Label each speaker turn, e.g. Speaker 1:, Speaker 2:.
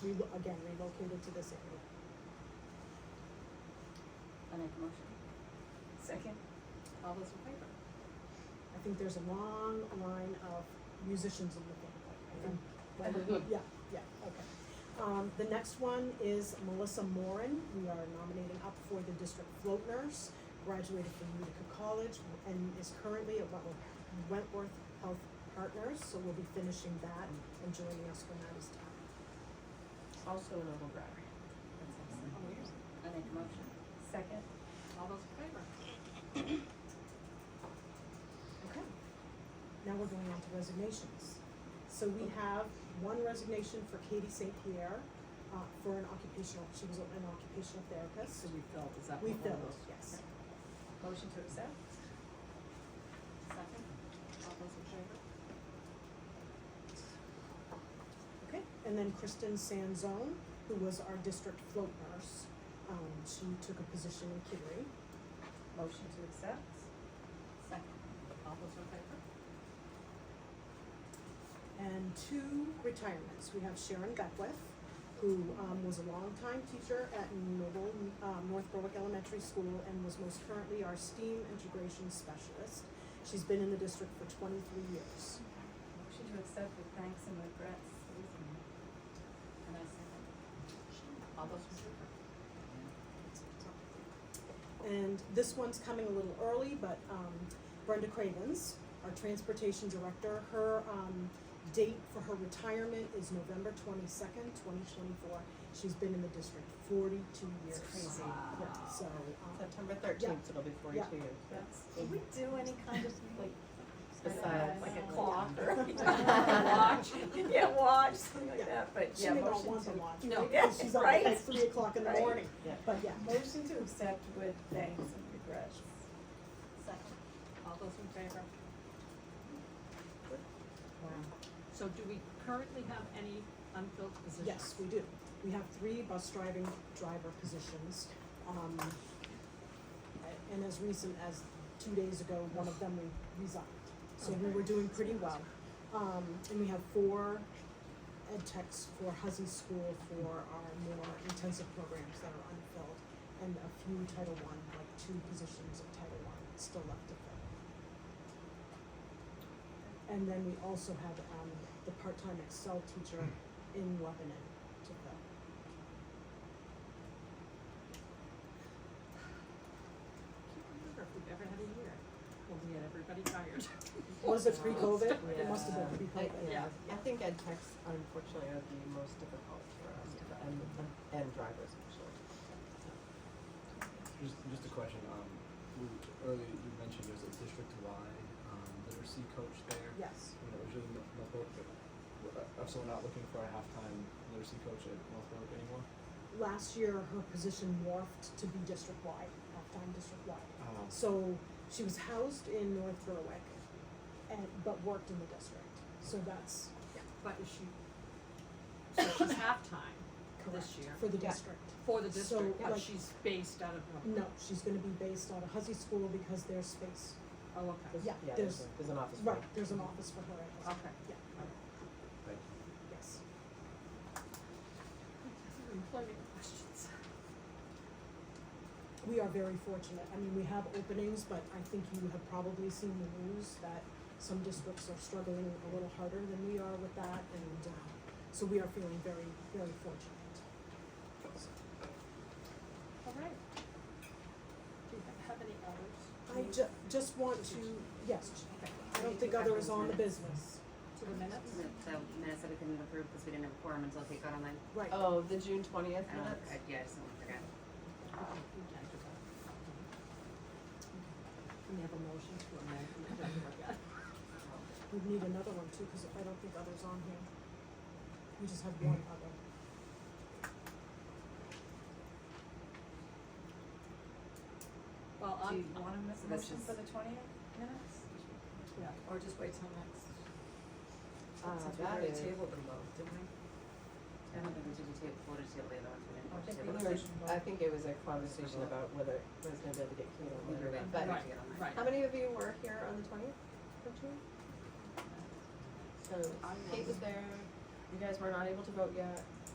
Speaker 1: re- again, relocated to this area.
Speaker 2: I make a motion. Second. All those in favor?
Speaker 1: I think there's a long line of musicians in the family. I think- Yeah, yeah, okay. Um, the next one is Melissa Moran. We are nominating up for the district float nurse, graduated from Utica College and is currently at Wentworth- Wentworth Health Partners, so we'll be finishing that and joining us when that is done.
Speaker 3: Also an override.
Speaker 2: That's excellent. I make a motion. Oh, Second. All those in favor?
Speaker 1: Okay. Now we're going on to resignations. So we have one resignation for Katie St. Pierre, uh, for an occupational, she was an occupational therapist.
Speaker 3: So we filled, is that
Speaker 1: We
Speaker 3: what all
Speaker 1: filled,
Speaker 3: those-
Speaker 1: yes.
Speaker 2: Motion to accept? Second. All those in favor?
Speaker 1: Okay, and then Kristen Sanzone, who was our district float nurse, um, she took a position in Kittery.
Speaker 2: Motion to accept? Second. All those in favor?
Speaker 1: And two retirements, we have Sharon Beckwith, who, um, was a longtime teacher at Noble, um, North Berwick Elementary School and was most currently our STEAM integration specialist. She's been in the district for twenty-three years.
Speaker 2: Motion to accept with thanks and regrets. And I second. All those in favor?
Speaker 1: And this one's coming a little early, but um, Brenda Cravens, our transportation director, her um, date for her retirement is November twenty-second, twenty twenty-four. She's been in the district forty-two years.
Speaker 3: crazy.
Speaker 1: Yeah, so, um,
Speaker 3: September thirteenth, it'll be forty-two years.
Speaker 4: Do we do any kind of like?
Speaker 3: Besides-
Speaker 4: Like a clock or
Speaker 2: Watch.
Speaker 4: watch, yeah, watch, something like
Speaker 1: Yeah.
Speaker 4: that, but
Speaker 1: she
Speaker 4: yeah,
Speaker 1: may not
Speaker 4: motion
Speaker 1: want
Speaker 4: to.
Speaker 1: to watch,
Speaker 2: No.
Speaker 1: right? 'Cause she's up
Speaker 4: Right.
Speaker 1: at three o'clock in the
Speaker 4: Right.
Speaker 1: morning.
Speaker 3: Yeah.
Speaker 1: But yeah,
Speaker 4: Motion to accept with thanks and regrets.
Speaker 2: Second. All those in favor?
Speaker 5: So do we currently have any unfilled positions?
Speaker 1: yes, we do. We have three bus driving driver positions. um, a- And as recent as two days ago, one of them re- resigned. So we were doing pretty well. Um, and we have four ed techs for Huzzy School for our more intensive programs that are unfilled. And a few Title I, like two positions of Title I still left to fill. And then we also have, um, the part-time Excel teacher in Lebanon to fill.
Speaker 5: I can't remember if we've ever had a year when we had everybody fired.
Speaker 1: Was it pre-COVID? It
Speaker 3: Yeah.
Speaker 1: must have been
Speaker 3: I-
Speaker 1: pre-COVID.
Speaker 3: Yeah, I think ed techs unfortunately are the most difficult for us, and, and drivers actually.
Speaker 6: Just, just a question, um, you- earlier you mentioned there's a district-wide, um, literacy coach there.
Speaker 1: Yes.
Speaker 6: You know, usually North North Berwick, but I'm still not looking for a half-time literacy coach at North Berwick anymore.
Speaker 1: Last year, her position morphed to be district-wide, half-time district-wide.
Speaker 6: Um,
Speaker 1: So she was housed in North Berwick and, but worked in the district. So that's
Speaker 5: But is she, so she's half-time
Speaker 1: correct
Speaker 5: this year
Speaker 1: for the
Speaker 3: Yeah.
Speaker 1: district.
Speaker 5: for the
Speaker 1: So,
Speaker 5: district, but
Speaker 1: like-
Speaker 5: she's based out of Norfolk.
Speaker 1: No, she's gonna be based out of Huzzy School because there's space.
Speaker 5: Oh, okay,
Speaker 3: There's-
Speaker 1: Yeah,
Speaker 3: there's,
Speaker 1: there's-
Speaker 3: a- there's an office. for
Speaker 1: Right,
Speaker 3: it.
Speaker 1: there's an office for her at Huzzy.
Speaker 5: okay.
Speaker 1: Yeah,
Speaker 6: Thank you.
Speaker 1: yes.
Speaker 5: Employment questions.
Speaker 1: We are very fortunate. I mean, we have openings, but I think you have probably seen the news that some districts are struggling a little harder than we are with that, and, uh, so we are feeling very, very fortunate.
Speaker 5: All right. Do you ha- have any others?
Speaker 1: I ju- just want to, yes,
Speaker 2: Okay.
Speaker 1: I don't think other is on the business.
Speaker 5: To the minutes?
Speaker 7: So minutes that we couldn't approve because we didn't have a quorum until they got online.
Speaker 1: Right,
Speaker 3: Oh, the June twentieth,
Speaker 7: I don't know, I- yeah, I just don't forget.
Speaker 5: Can we have a motion to amend the agenda again?
Speaker 1: we need another one too, cause I don't think others on here. We just have one other.
Speaker 5: Well,
Speaker 7: Do
Speaker 5: I'm,
Speaker 7: you-
Speaker 2: Want to miss
Speaker 7: So
Speaker 2: a
Speaker 7: that's
Speaker 2: motion
Speaker 7: just-
Speaker 2: for the twentieth minutes?
Speaker 5: yeah,
Speaker 2: Or just wait till next?
Speaker 3: uh,
Speaker 2: Since we
Speaker 3: that
Speaker 2: already
Speaker 3: is.
Speaker 2: tabled them both, didn't we?
Speaker 7: I don't think we did the table, voted table the other ones, we
Speaker 2: Oh, I think we
Speaker 3: We
Speaker 7: didn't. vote table.
Speaker 3: were,
Speaker 2: Conversation about-
Speaker 3: I think it was a conversation about whether it was gonna be able to get Kate on
Speaker 7: We were
Speaker 3: later,
Speaker 7: waiting
Speaker 3: but.
Speaker 7: for it to get online.
Speaker 5: right.
Speaker 3: How many of you were here on the twentieth of June? So
Speaker 2: I
Speaker 3: Kate was there, you guys were not able to vote yet,